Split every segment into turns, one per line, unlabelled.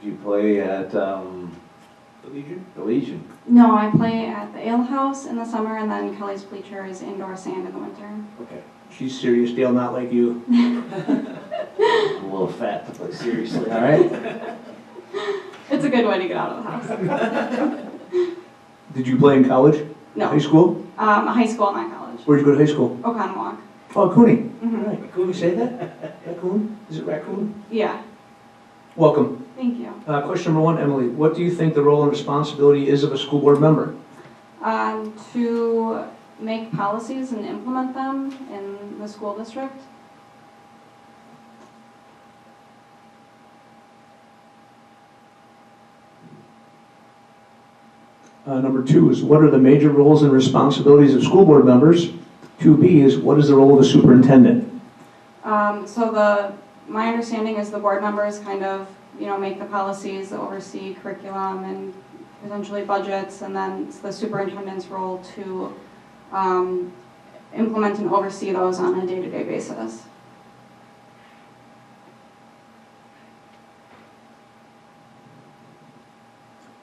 Do you play at um,
The Legion?
the Legion?
No, I play at the Ale House in the summer, and then Kelly's Bleacher is indoor sand in the winter.
Okay. She's serious, Dale, not like you.
I'm a little fat to play seriously, all right?
It's a good way to get out of the house.
Did you play in college?
No,
High school?
um, high school, not college.
Where'd you go to high school?
Oconomowoc.
Oh, Cooney.
Mhm.
All right. Cooney, say that? Raccoon? Is it raccoon?
Yeah,
Welcome.
thank you.
Uh, question number one, Emily, what do you think the role and responsibility is of a school board member?
Um, to make policies and implement them in the school district.
Uh, number two is what are the major roles and responsibilities of school board members? Two B is what is the role of the superintendent?
Um, so the, my understanding is the board members kind of, you know, make the policies, oversee curriculum and potentially budgets, and then it's the superintendent's role to, um, implement and oversee those on a day-to-day basis.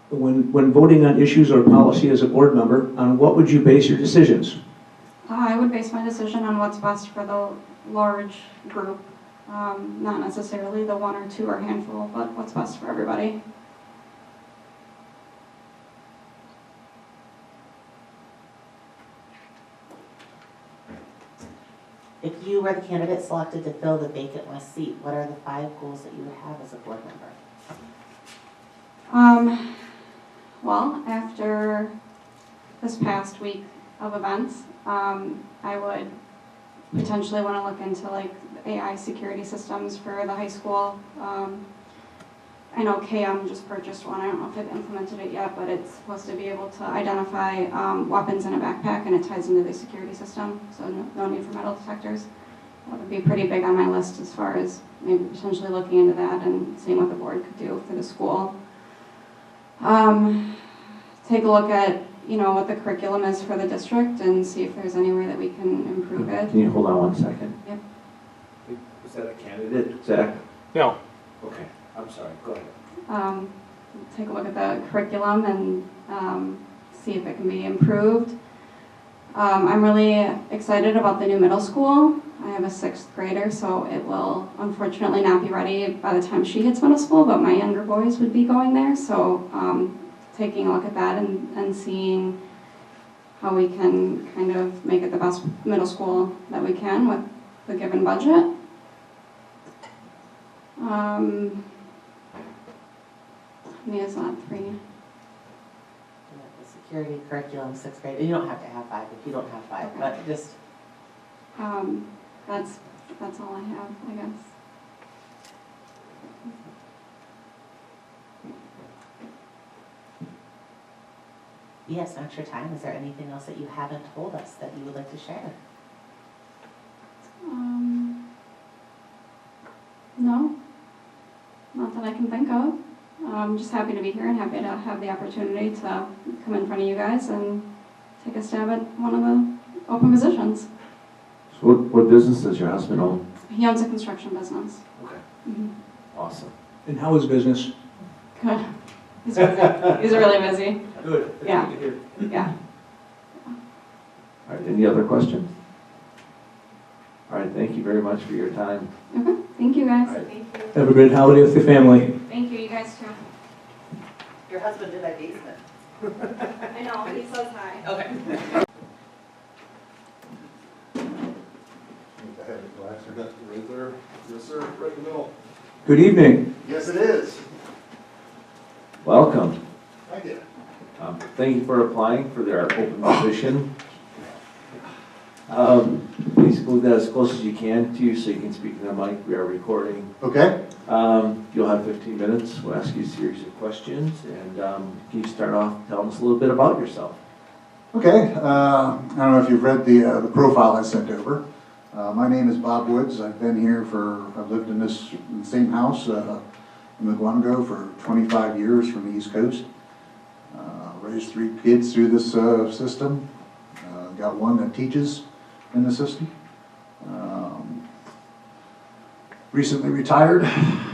When, when voting on issues or policy as a board member, on what would you base your decisions?
Uh, I would base my decision on what's best for the large group, um, not necessarily the one or two or handful, but what's best for everybody.
If you were the candidate selected to fill the vacant West seat, what are the five goals that you would have as a board member?
Um, well, after this past week of events, um, I would potentially want to look into like AI security systems for the high school. Um, I know KM just purchased one, I don't know if they've implemented it yet, but it's supposed to be able to identify, um, weapons in a backpack and it ties into the security system, so no, no need for metal detectors. That would be pretty big on my list as far as maybe potentially looking into that and seeing what the board could do for the school um, take a look at, you know, what the curriculum is for the district and see if there's any way that we can improve it.
Can you hold on one second?
Yep.
Is that a candidate, Zach?
No.
Okay, I'm sorry, go ahead.
Um, take a look at the curriculum and, um, see if it can be improved. Um, I'm really excited about the new middle school. I have a sixth grader, so it will unfortunately not be ready by the time she hits middle school, but my younger boys would be going there, so, um, taking a look at that and, and seeing how we can kind of make it the best middle school that we can with the given budget. Um, Mia's on three.
You know, The security curriculum, sixth grade, you don't have to have five if you don't have five,
Okay.
but just,
Um, that's, that's all I have, I guess.
yes, extra time, is there anything else that you haven't told us that you would like to share?
Um, no, not that I can think of. I'm just happy to be here and happy to have the opportunity to come in front of you guys and take a stab at one of the open positions.
So what, what business does your husband own?
He owns a construction business.
Okay.
Mhm.
Awesome.
And how is business?
Good. He's busy. He's really busy.
Good. That's
Yeah.
good to hear.
Yeah.
All right, any other questions? All right, thank you very much for your time.
Okay. Thank you guys.
All right.
Thank you.
Have a great holiday with your family.
Thank you. You guys too.
Your husband did my basement.
I know. He says hi.
Okay.
Think I have a glass or not, right there. Yes, sir, right in the middle.
Good evening.
Yes, it is.
Welcome.
I did.
Um, Thank you for applying for their open position. Um, Please move that as close as you can to you so you can speak to the mic. We are recording.
Okay.
Um, You'll have 15 minutes. We'll ask you a series of questions. And um, can you start off telling us a little bit about yourself?
Okay, uh, I don't know if you've read the, uh, the profile I sent over. Uh, my name is Bob Woods. I've been here for, I've lived in this same house, uh, in McGuanago for twenty-five years from the East Coast. Uh, Raised three kids through this, uh, system. Uh, got one that teaches in the system. Um, Recently retired,